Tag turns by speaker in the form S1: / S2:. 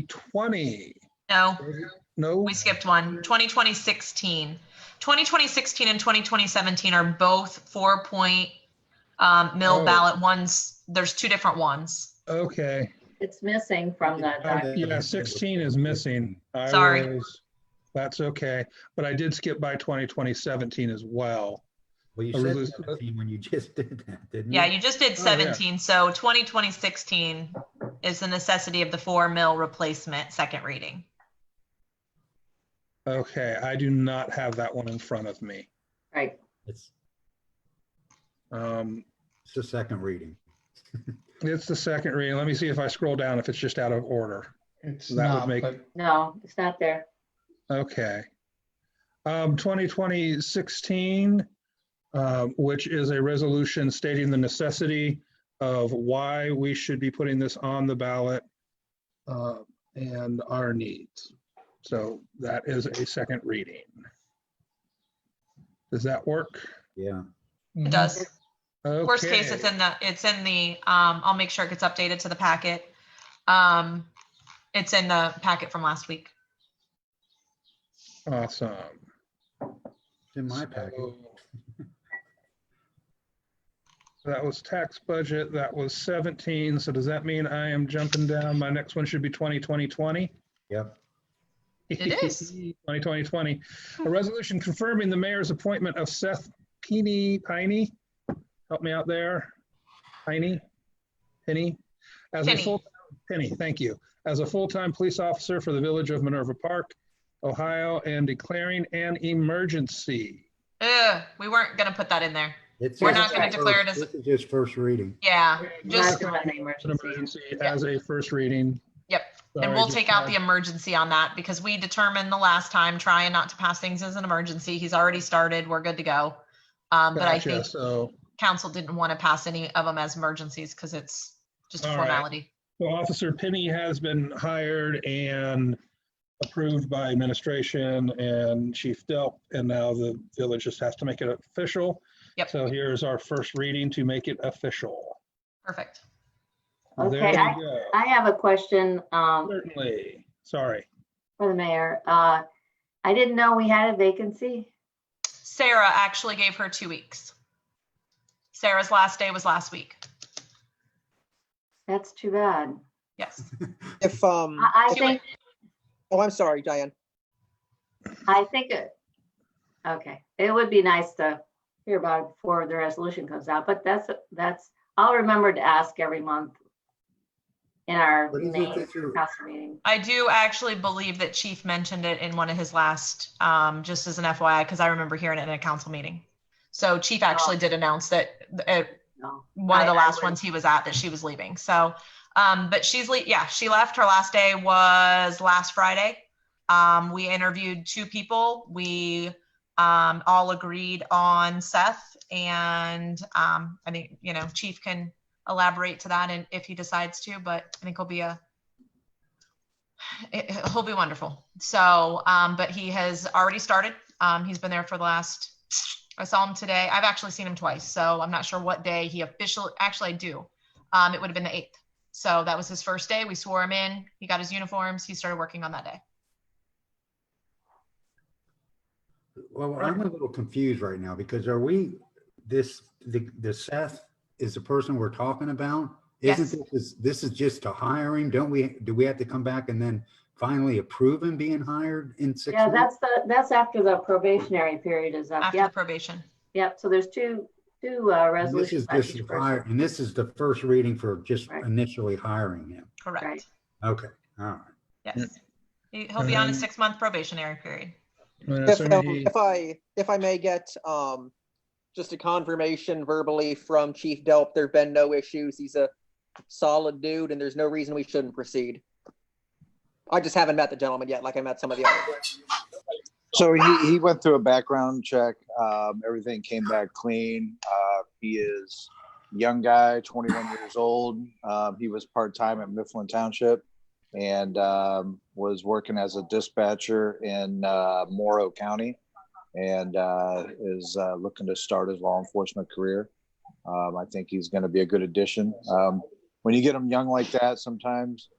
S1: 2020-20?
S2: No,
S1: No?
S2: we skipped one. 2020 16. 2020 16 and 2020 17 are both four point um, mill
S1: Oh.
S2: ballot ones. There's two different ones.
S1: Okay.
S3: It's missing from the
S1: Uh,
S3: document.
S1: Yeah, 16 is missing. I
S2: Sorry.
S1: was- That's okay, but I did skip by 2020-17 as well.
S4: Well, you
S1: I
S4: said
S1: really-
S4: 17 when you just did that, didn't you?
S2: Yeah, you just did 17. So 2020 16 is the necessity of the four mill replacement second reading.
S1: Okay, I do not have that one in front of me.
S3: Right.
S4: It's
S1: Um,
S4: it's the second reading.
S1: It's the second reading. Let me see if I scroll down if it's just out of order.
S5: It's
S1: That would
S5: not,
S1: make-
S5: but
S3: No, it's not there.
S1: Okay. Um, 2020-16, um, which is a resolution stating the necessity of why we should be putting this on the ballot uh, and our needs. So that is a second reading. Does that work?
S4: Yeah.
S1: Mm-hmm.
S2: It does. Worst case, it's
S1: Okay.
S2: in the, it's in the, um, I'll make sure it gets updated to the packet. Um, it's in the packet from last week.
S1: Awesome.
S4: It's in my packet.
S1: So- That was tax budget, that was 17, so does that mean I am jumping down? My next one should be 20, 20, 20?
S4: Yep.
S2: It is.
S1: 20, 20, 20. A resolution confirming the mayor's appointment of Seth Peeny, Piney, help me out there, Piney, Penny, as a
S2: Penny.
S1: full, Penny, thank you, as a full-time police officer for the village of Minerva Park, Ohio, and declaring an emergency.
S2: Ugh, we weren't gonna put that in there.
S4: It's
S2: We're
S4: just
S3: not gonna
S4: first-
S2: declare it as-
S4: This is just first reading.
S2: Yeah,
S3: Not
S2: just,
S3: doing the
S1: It's an
S3: emergency.
S1: emergency as a first reading.
S2: Yep, and
S1: Sorry,
S2: we'll
S1: just
S2: take out the
S1: wanted-
S2: emergency on that because we determined the last time trying not to pass things as an emergency. He's already started. We're good to go. Um, but I
S1: Gotcha,
S2: think
S1: So,
S2: council didn't want to pass any of them as emergencies because it's just a
S1: All right.
S2: formality.
S1: so Officer Penny has been hired and approved by administration and Chief Delp, and now the village just has to make it official.
S2: Yep.
S1: So here's our first reading to make it official.
S2: Perfect.
S1: There
S3: Okay, I-
S1: you go.
S3: I have a question um,
S1: Certainly, sorry.
S3: for the mayor. Uh, I didn't know we had a vacancy.
S2: Sarah actually gave her two weeks. Sarah's last day was last week.
S3: That's too bad.
S2: Yes.
S6: If, um,
S3: I,
S2: Do
S3: I
S2: it.
S3: think,
S6: oh, I'm sorry, Diane.
S3: I think, it. okay, it would be nice to hear about it before the resolution comes out, but that's, that's, I'll remember to ask every month in our
S4: What is it
S3: main
S4: that you're-
S3: council meeting.
S2: I do actually believe that Chief mentioned it in one of his last, um, just as an FYI, because I remember hearing it in a council meeting. So Chief actually did announce that uh, th- at
S3: No.
S2: one of the
S3: I- I
S2: last
S3: would-
S2: ones he was at that she was leaving. So, um, but she's le- yeah, she left. Her last day was last Friday. Um, we interviewed two people. We um, all agreed on Seth, and um, I think you know Chief can elaborate to that, and if he decides to, but I think he'll be a it, he'll be wonderful. So, um, but he has already started. Um, he's been there for the last, I saw him today. I've actually seen him twice. So I'm not sure what day he officially, actually I do. Um, it would have been the eighth. So that was his first day. We swore him in. He got his uniforms. He started working on that day.
S4: Well, I'm a little confused right now because are we, this, the, the Seth is the person we're talking about?
S2: Yes.
S4: Isn't this, this is just to hire him? Don't we, do we have to come back and then finally approve him being hired in six
S3: Yeah,
S4: months?
S3: that's the, that's after the probationary period is up.
S2: After
S3: Yep.
S2: the probation.
S3: Yep, so there's two, two uh,
S4: And This
S3: resolutions.
S4: is
S3: by
S4: just
S3: each
S4: to
S3: person.
S4: hire, and this is the first reading for just
S3: Right.
S4: initially hiring him.
S2: Correct.
S3: Right.
S4: Okay, all right.
S2: Yes. He, will be on his
S1: Um,
S2: six month probationary period.
S1: And
S6: If,
S1: assuming
S6: um,
S1: he-
S6: if I, if I may get, um, just a confirmation verbally from Chief Delp, there've been no issues. He's a solid dude and there's no reason we shouldn't proceed. I just haven't met the gentleman yet, like I met some of the others.
S7: So he, he went through a background check. Um, everything came back clean. Uh, he is a young guy, 21 years old. Um, he was part time at Mifflin Township and um, was working as a dispatcher in uh, Morrow County and uh, is uh, looking to start his law enforcement career. Um, I think he's going to be a good addition. Um, when you get them young like that, sometimes